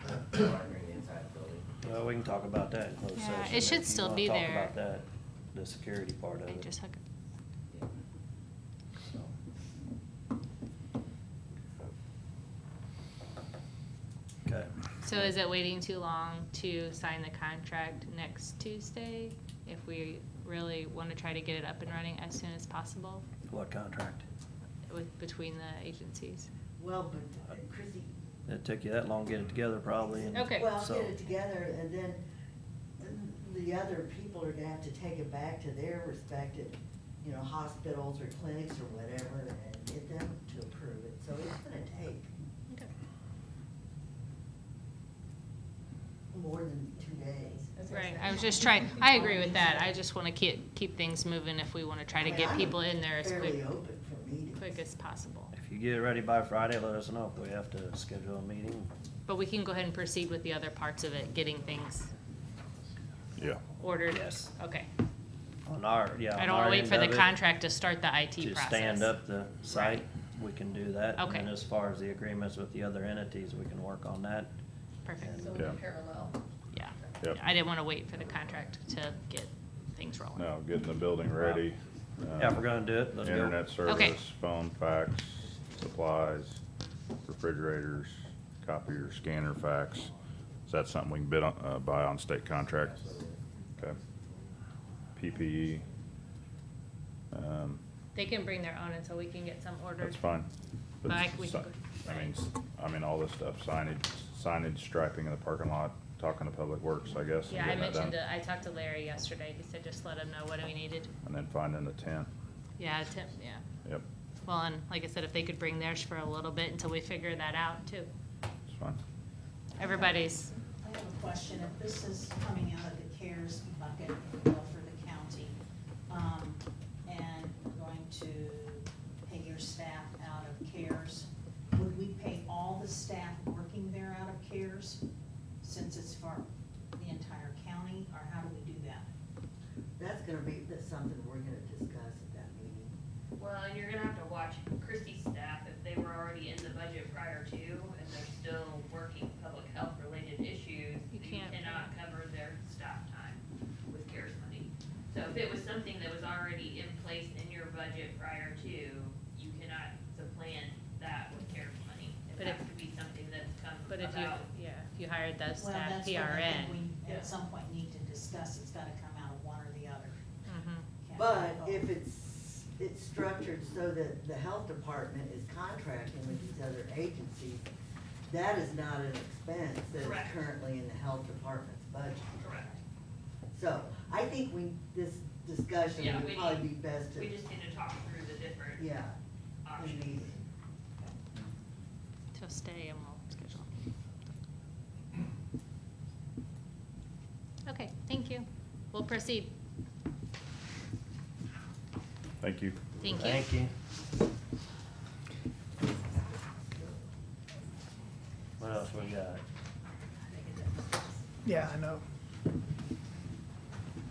monitoring the inside the building. Well, we can talk about that in closed Yeah, session. it if should you still wanna be talk there. about that, the security part of They it. just hook it. Yeah. So, Okay. So is it waiting too long to sign the contract next Tuesday? If we really want to try to get it up and running as soon as possible What contract? with, between the agencies? Well, but Chrissy, It took you that long to get it together probably and. Okay. well, so- get it together and then the other people are gonna have to take it back to their respective, you know, hospitals or clinics or whatever and get them to approve it. So it's gonna take Okay. more than two days. Right, I was just trying, I agree with that. I just want to keep, keep things moving if we want to try to I mean, get I'm people in there as Fairly quick, open for meetings. quick as possible. If you get it ready by Friday, let us know if we have to schedule a meeting. But we can go ahead and proceed with the other parts of it, getting things Yeah. ordered. Yes. Okay. On our, yeah. I on don't want our to wait end for the of it, contract to start the IT To process. stand up the site, we can do that. Okay. And then as far as the agreements with the other entities, we can work on that. Perfect. Yeah. parallel. Yeah. Yep. I didn't want to wait for the contract to get things rolling. No, getting the building ready. uh, Yeah, if we're gonna do it, let's go. Internet Okay. service, phone, fax, supplies, refrigerators, copier, scanner, fax. Is that something we can bid on, uh, buy on state contract? Absolutely. Okay. PPE. Um, They can bring their own until we can get some ordered. That's fine. But I- we si- can go- I mean, s- I mean, all this stuff, signage, signage striping in the parking lot, talking to Public Works, I guess. and Yeah, I getting that mentioned, done. it. I talked to Larry yesterday. He said just let him know what we needed. And then finding the tent, Yeah, Tim, yeah. yep, Well, and like I said, if they could bring theirs for a little bit until we figure that out too. it's fine. Everybody's, I have a question. If this is coming out of the CARES bucket if you will, for the county, um, and we're going to pay your staff out of CARES, would we pay all the staff working there out of CARES since it's for the entire county, or how do we do that? That's gonna be, that's something we're gonna discuss at that meeting. Well, and you're gonna have to watch Christie's staff if they were already in the budget prior to and they're still working public health related issues. You can't. cannot cover their staff time with CARES money. So if it was something that was already in place in your budget prior to, you cannot supplant that with CARES money. But It if- has to be something that's come but if you, about. yeah, if you hired that Well, staff that's what I think PRN. we At some point need to discuss. It's gotta come out of one or the other. Mhm. Can't But have both. if it's, it's structured so that the health department is contracting with these other agencies, that is not an expense that is Correct. currently in the health department's budget. Correct. So I think we, this discussion Yeah, would we probably be need- best We to, just need to talk through the different yeah, in options. meeting. So stay and we'll schedule. Okay, thank you. We'll proceed. Thank you. Thank you. Thank you. What else we got? Yeah, I know.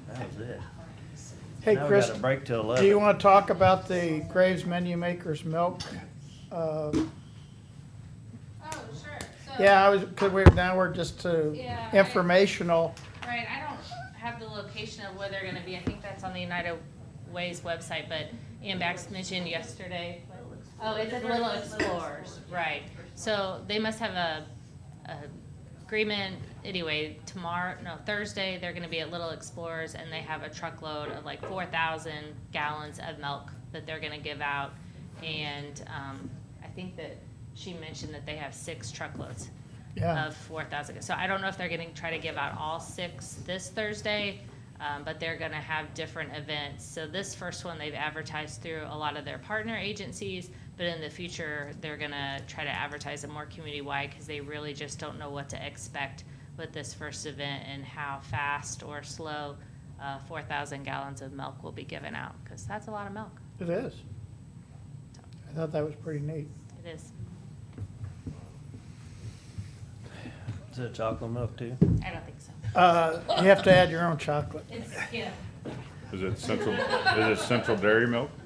That was it. Hey, Now we Chris, got a break till eleven. do you want to talk about the Graves Menu Maker's Milk? Uh, Oh, sure. So, Yeah, I was, because we're, now we're just to Yeah, I- informational. right, I don't have the location of where they're gonna be. I think that's on the United Way's website, but Ian Bax mentioned yesterday. Oh, it's at Little Explorers, right. So they must have a, a agreement, anyway, tomorrow, no, Thursday, they're gonna be at Little Explorers and they have a truckload of like four thousand gallons of milk that they're gonna give out. And, um, I think that she mentioned that they have six truckloads Yeah. of four thousand. So I don't know if they're gonna try to give out all six this Thursday, um, but they're gonna have different events. So this first one, they've advertised through a lot of their partner agencies, but in the future, they're gonna try to advertise it more community-wide, cause they really just don't know what to expect with this first event and how fast or slow, uh, four thousand gallons of milk will be given out, cause that's a lot of milk. It is. So I thought that was pretty neat. It is. Is it chocolate milk too? I don't think so. Uh, You have to add your own chocolate. It's, yeah. Is it central, is it central dairy milk? Um,